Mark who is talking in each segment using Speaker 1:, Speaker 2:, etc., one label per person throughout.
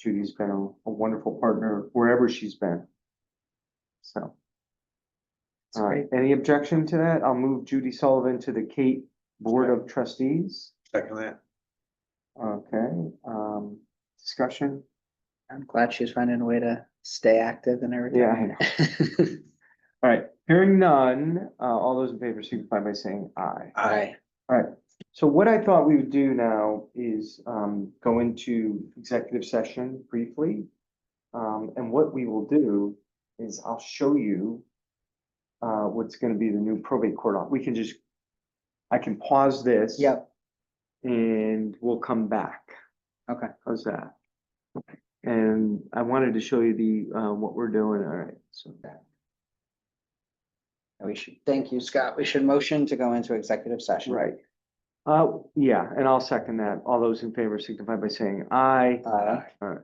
Speaker 1: Judy's been a a wonderful partner wherever she's been. So.
Speaker 2: That's
Speaker 1: All right, any objection to that? I'll move Judy Sullivan to the Kate Board of Trustees.
Speaker 3: Second that.
Speaker 1: Okay, um, discussion?
Speaker 2: I'm glad she's finding a way to stay active and everything.
Speaker 1: Yeah, I know. All right, hearing none, uh, all those in favor signify by saying aye.
Speaker 3: Aye.
Speaker 1: So what I thought we would do now is um go into executive session briefly. Um, and what we will do is I'll show you uh what's gonna be the new probate court. op- We can just, I can pause this.
Speaker 2: Yep,
Speaker 1: And we'll come back.
Speaker 2: Okay.
Speaker 1: How's that? And I wanted to show you the uh what we're doing, all right, so.
Speaker 2: we should, thank you, Scott. We should motion to go into executive session.
Speaker 1: Right. Uh, yeah, and I'll second that. All those in favor signify by saying aye.
Speaker 2: Uh,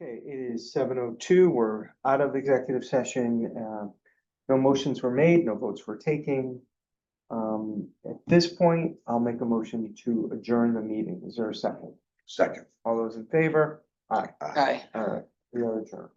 Speaker 1: Okay, it is seven oh two. We're out of executive session. Uh, No motions were made, no votes were taken. Um, at this point, I'll make a motion to adjourn the meeting. Is there a second?
Speaker 3: Second.
Speaker 1: All those in favor? Aye.
Speaker 2: Aye.
Speaker 1: All right, we are adjourned.